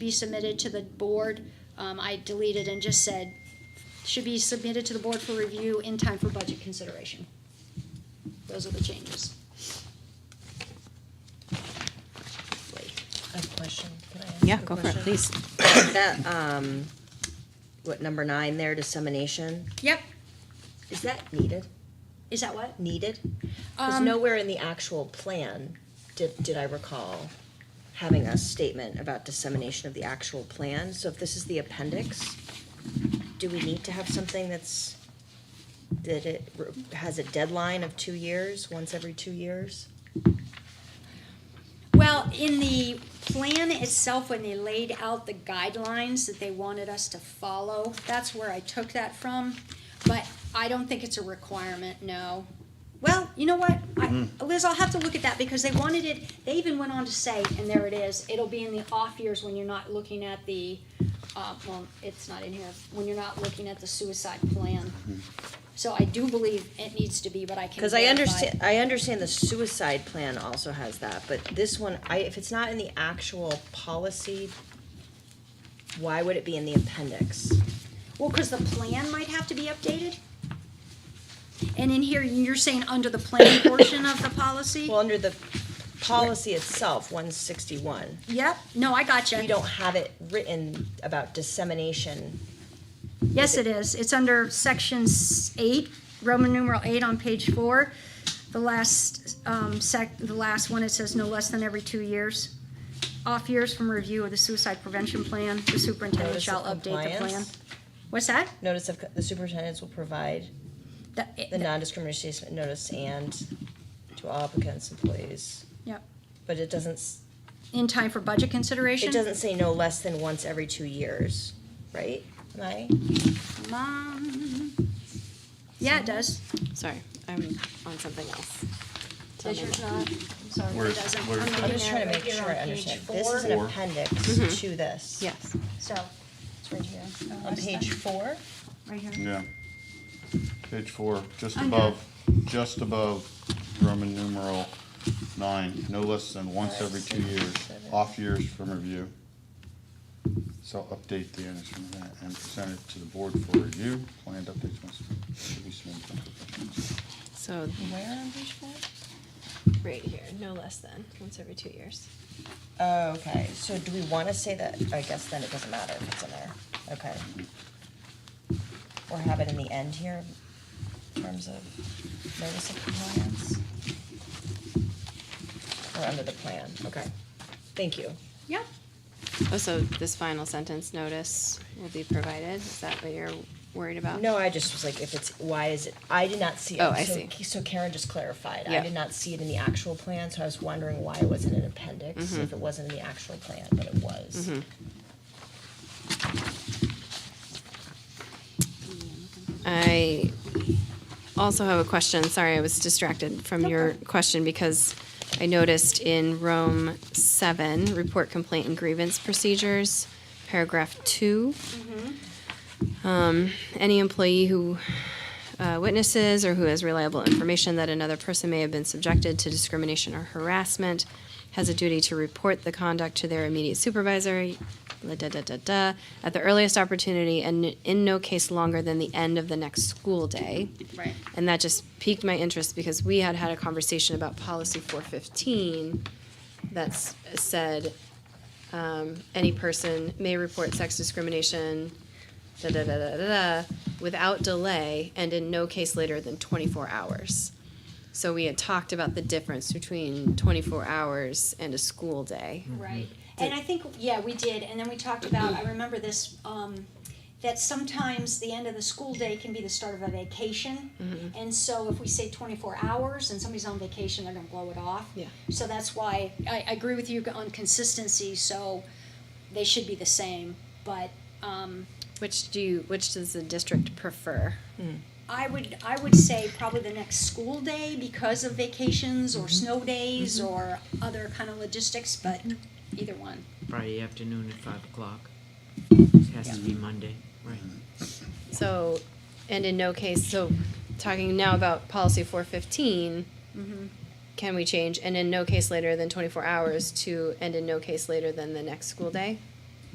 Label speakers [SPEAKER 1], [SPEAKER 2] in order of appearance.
[SPEAKER 1] be submitted to the board. Um, I deleted and just said, should be submitted to the board for review in time for budget consideration. Those are the changes. Wait.
[SPEAKER 2] I have a question. Can I ask
[SPEAKER 3] Yeah,
[SPEAKER 2] a
[SPEAKER 3] go for it,
[SPEAKER 2] question?
[SPEAKER 3] please.
[SPEAKER 2] That, um, what, number nine there, dissemination,
[SPEAKER 1] Yep,
[SPEAKER 2] is that needed?
[SPEAKER 1] is that what?
[SPEAKER 2] Needed? Because
[SPEAKER 1] Um,
[SPEAKER 2] nowhere in the actual plan did, did I recall having a statement about dissemination of the actual plan. So if this is the appendix, do we need to have something that's, that it re- has a deadline of two years, once every two years?
[SPEAKER 1] Well, in the plan itself, when they laid out the guidelines that they wanted us to follow, that's where I took that from. But I don't think it's a requirement, no. Well, you know what? I, Liz, I'll have to look at that because they wanted it, they even went on to say, and there it is, it'll be in the off years when you're not looking at the, uh, well, it's not in here, when you're not looking at the suicide plan. So I do believe it needs to be, but I can
[SPEAKER 2] Because I
[SPEAKER 1] verify.
[SPEAKER 2] understand, I understand the suicide plan also has that, but this one, I, if it's not in the actual policy, why would it be in the appendix?
[SPEAKER 1] Well, because the plan might have to be updated? And in here, you're saying under the plan portion of the policy?
[SPEAKER 2] Well, under the policy itself, one sixty-one,
[SPEAKER 1] Yep, no, I got
[SPEAKER 2] we
[SPEAKER 1] you.
[SPEAKER 2] don't have it written about dissemination.
[SPEAKER 1] Yes, it is. It's under section s- eight, Roman numeral eight on page four. The last, um, sec, the last one, it says no less than every two years. Off years from review of the suicide prevention plan, the superintendent
[SPEAKER 2] Notice of
[SPEAKER 1] shall update the plan.
[SPEAKER 2] compliance.
[SPEAKER 1] What's that?
[SPEAKER 2] Notice of, co- the superintendents will provide
[SPEAKER 1] The-
[SPEAKER 2] the non-discrimination statement notice and to all applicants, employees,
[SPEAKER 1] Yep,
[SPEAKER 2] but it doesn't, s-
[SPEAKER 1] in time for budget consideration?
[SPEAKER 2] it doesn't say no less than once every two years, right? Am I?
[SPEAKER 1] Mom. Yeah, it does.
[SPEAKER 3] Sorry, I'm on something else. Tell
[SPEAKER 1] Does
[SPEAKER 3] me
[SPEAKER 1] yours
[SPEAKER 3] what-
[SPEAKER 1] not? Sorry,
[SPEAKER 4] Where's-
[SPEAKER 1] it doesn't.
[SPEAKER 4] where's-
[SPEAKER 1] I'm
[SPEAKER 4] I'm
[SPEAKER 1] looking
[SPEAKER 2] I'm just
[SPEAKER 1] at
[SPEAKER 2] trying
[SPEAKER 1] it
[SPEAKER 2] to make
[SPEAKER 1] right here
[SPEAKER 2] sure I
[SPEAKER 1] on page
[SPEAKER 2] understand.
[SPEAKER 1] four.
[SPEAKER 2] This is an
[SPEAKER 4] Four.
[SPEAKER 2] appendix to this.
[SPEAKER 3] Yes,
[SPEAKER 1] So, it's right here. Oh,
[SPEAKER 2] On
[SPEAKER 1] that's
[SPEAKER 2] page
[SPEAKER 1] not-
[SPEAKER 2] four,
[SPEAKER 1] Right here.
[SPEAKER 4] Yeah. Page four, just
[SPEAKER 1] Under.
[SPEAKER 4] above, just above Roman numeral nine, no less than once every two years, off years from review. So update the annex from that and present it to the board for review, planned updates must, should be submitted. to the professionals.
[SPEAKER 3] so
[SPEAKER 2] where on page four?
[SPEAKER 3] right here, no less than once every two years.
[SPEAKER 2] Oh, okay, so do we wanna say that, I guess then it doesn't matter if it's in there, okay. Or have it in the end here, in terms of notice of compliance? Or under the plan, okay, thank you.
[SPEAKER 1] Yep.
[SPEAKER 3] Oh, so this final sentence notice will be provided, is that what you're worried about?
[SPEAKER 2] No, I just was like, if it's, why is it, I did not see it.
[SPEAKER 3] Oh, I
[SPEAKER 2] So-
[SPEAKER 3] see.
[SPEAKER 2] So Karen just clarified, I
[SPEAKER 3] Yeah.
[SPEAKER 2] did not see it in the actual plan, so I was wondering why it wasn't an appendix,
[SPEAKER 3] Mm-hmm.
[SPEAKER 2] if it wasn't in the actual plan, but it was.
[SPEAKER 3] I also have a question, sorry, I was distracted from your question because I noticed in Rome seven, report complaint and grievance procedures, paragraph two. Um, any employee who uh, witnesses or who has reliable information that another person may have been subjected to discrimination or harassment has a duty to report the conduct to their immediate supervisor, la da da da da, at the earliest opportunity and in no case longer than the end of the next school day.
[SPEAKER 1] Right.
[SPEAKER 3] And that just piqued my interest because we had had a conversation about policy 415 that's said um, any person may report sex discrimination da, da, da, da, da, da, without delay and in no case later than 24 hours. So we had talked about the difference between 24 hours and a school day.
[SPEAKER 1] Right. And I think, yeah, we did, and then we talked about, I remember this, um, that sometimes the end of the school day can be the start of a vacation.
[SPEAKER 2] Mm-hmm.
[SPEAKER 1] And so if we say twenty-four hours and somebody's on vacation, they're gonna blow it off.
[SPEAKER 3] Yeah.
[SPEAKER 1] So that's why, I, I agree with you on consistency, so they should be the same, but, um,
[SPEAKER 3] Which do you, which does the district prefer?
[SPEAKER 1] I would, I would say probably the next school day because of vacations or snow days or other kind of logistics, but either one.
[SPEAKER 5] Friday afternoon at five o'clock. Has to be Monday, right?
[SPEAKER 3] So, and in no case, so talking now about policy 415, can we change and in no case later than 24 hours to and in no case later than the next school day?